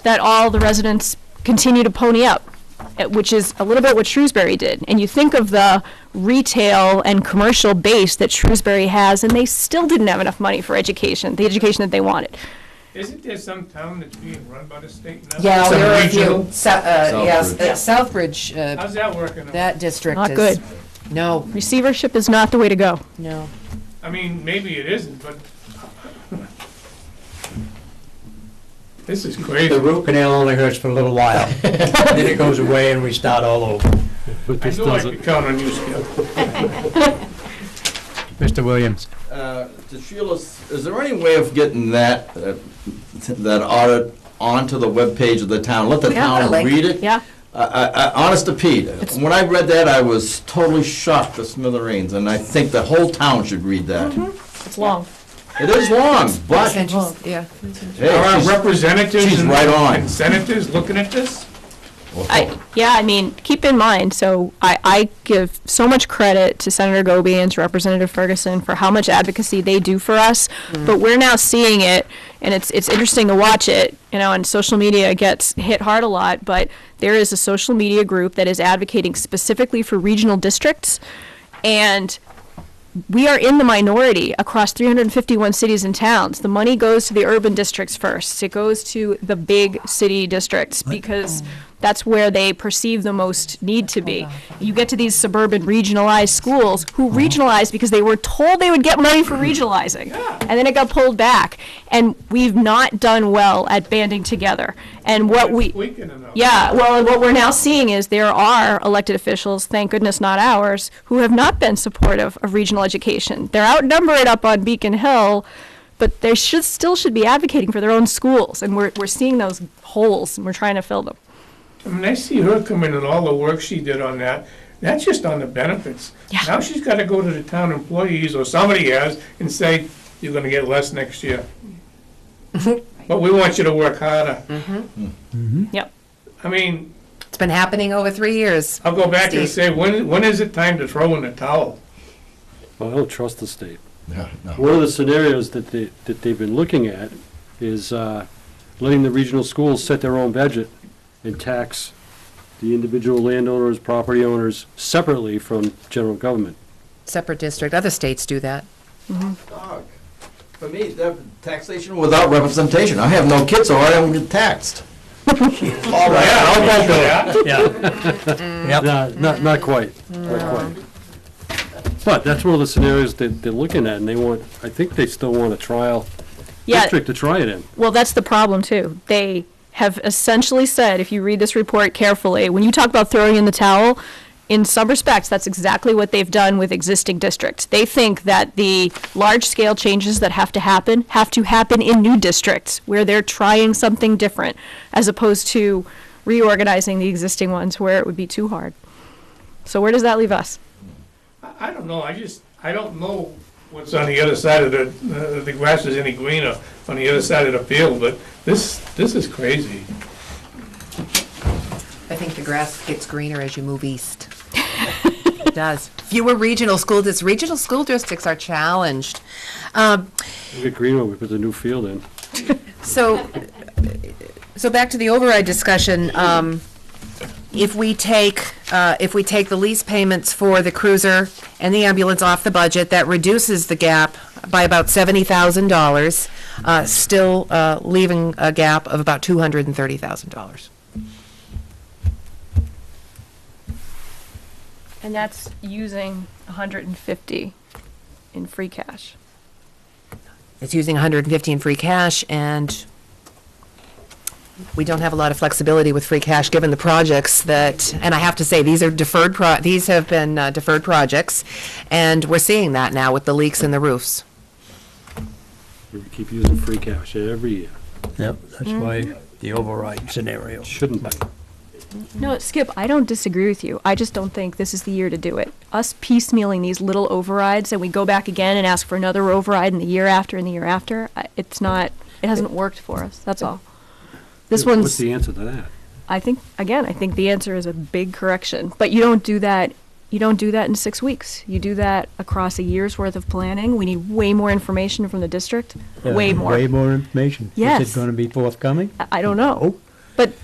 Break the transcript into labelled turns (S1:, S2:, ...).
S1: that all the residents continue to pony up, eh, which is a little bit what Shrewsbury did. And you think of the retail and commercial base that Shrewsbury has, and they still didn't have enough money for education, the education that they wanted.
S2: Isn't there some town that's being run by the state now?
S3: Yeah,
S4: Some
S3: there are a few,
S4: regional?
S3: So- uh, yes, uh, Southbridge, uh,
S2: How's that working? out?
S3: that district is.
S1: Not good.
S3: No,
S1: Receivership is not the way to go.
S3: no.
S2: I mean, maybe it isn't, but. This is
S4: The
S2: crazy.
S4: root canal only hurts for a little while. Then it goes away and we start all over.
S5: But
S2: I
S5: this
S2: knew I could
S5: doesn't,
S2: count on you, Skip.
S4: Mr. Williams?
S6: Uh, to Sheila, is there any way of getting that, uh, that audit onto the webpage of the town? Let the
S3: We have that
S6: town
S3: link.
S6: read it?
S1: Yeah?
S6: I- I- I- Honest to Pete, when I read that, I was totally shocked to smithereens, and I think the whole town should read that.
S1: It's long.
S6: It is long, but
S3: That's interesting, yeah.
S6: hey,
S2: Are our
S6: she's-
S2: representatives
S6: she's
S2: and
S6: right on.
S2: and senators looking at this?
S1: I, yeah, I mean, keep in mind, so I, I give so much credit to Senator Goby and to Representative Ferguson for how much advocacy they do for us, but we're now seeing it, and it's, it's interesting to watch it, you know, and social media gets hit hard a lot, but there is a social media group that is advocating specifically for regional districts, and we are in the minority across 351 cities and towns. The money goes to the urban districts first. It goes to the big city districts because that's where they perceive the most need to be. You get to these suburban regionalized schools who regionalize because they were told they would get money for regionalizing. And then it got pulled back. And we've not done well at banding together. And what we.
S2: It's weakening them.
S1: Yeah, well, and what we're now seeing is there are elected officials, thank goodness not ours, who have not been supportive of regional education. They're outnumbered up on Beacon Hill, but they should, still should be advocating for their own schools, and we're, we're seeing those holes, and we're trying to fill them.
S2: I mean, I see her come in and all the work she did on that. That's just on the benefits.
S1: Yeah.
S2: Now she's gotta go to the town employees or somebody has and say, you're gonna get less next year. But we want you to work harder.
S1: Yep.
S2: I mean,
S3: It's been happening over three years.
S2: I'll go back and
S3: Steve.
S2: say, when, when is it time to throw in the towel?
S5: I don't trust the state.
S6: No, no.
S5: One of the scenarios that they, that they've been looking at is uh, letting the regional schools set their own budget and tax the individual landowners, property owners separately from general government.
S3: Separate district, other states do that.
S6: Dog. For me, that taxation without representation. I have no kids, so I don't get taxed. All right, I'll vote for that.
S4: Yeah. Yep.
S5: No, Uh, Not, not quite,
S1: Mm.
S5: not quite. But that's one of the scenarios that they're looking at, and they want, I think they still want a trial
S1: Yeah.
S5: district to try it in.
S1: Well, that's the problem too. They have essentially said, if you read this report carefully, when you talk about throwing in the towel, in some respects, that's exactly what they've done with existing districts. They think that the large-scale changes that have to happen have to happen in new districts where they're trying something different, as opposed to reorganizing the existing ones where it would be too hard. So where does that leave us?
S2: I I don't know, I just, I don't know what's on the other side of the, uh, the grass is any greener on the other side of the field, but this, this is crazy.
S3: I think the grass gets greener as you move east. It does. Fewer regional school districts, regional school districts are challenged. Um,
S5: Look at Greenwood, we put the new field in.
S3: So, so back to the override discussion, um, if we take, uh, if we take the lease payments for the cruiser and the ambulance off the budget, that reduces the gap by about seventy thousand dollars, uh, still, uh, leaving a gap of about two hundred and thirty thousand dollars.
S1: And that's using 150 in free cash.
S3: It's using $150 in free cash, and we don't have a lot of flexibility with free cash, given the projects that, and I have to say, these are deferred pro, these have been uh, deferred projects, and we're seeing that now with the leaks in the roofs.
S5: We keep using free cash every year.
S4: Yep, that's why the override scenario.
S5: Shouldn't be.
S1: No, Skip, I don't disagree with you. I just don't think this is the year to do it. Us piecemealing these little overrides and we go back again and ask for another override in the year after and the year after, I- it's not, it hasn't worked for us, that's all. This
S5: What's
S1: one's,
S5: the answer to that?
S1: I think, again, I think the answer is a big correction, but you don't do that, you don't do that in six weeks. You do that across a year's worth of planning. We need way more information from the district, way more.
S4: Way more information.
S1: Yes.
S4: Is it gonna be forthcoming?
S1: I- I don't know. But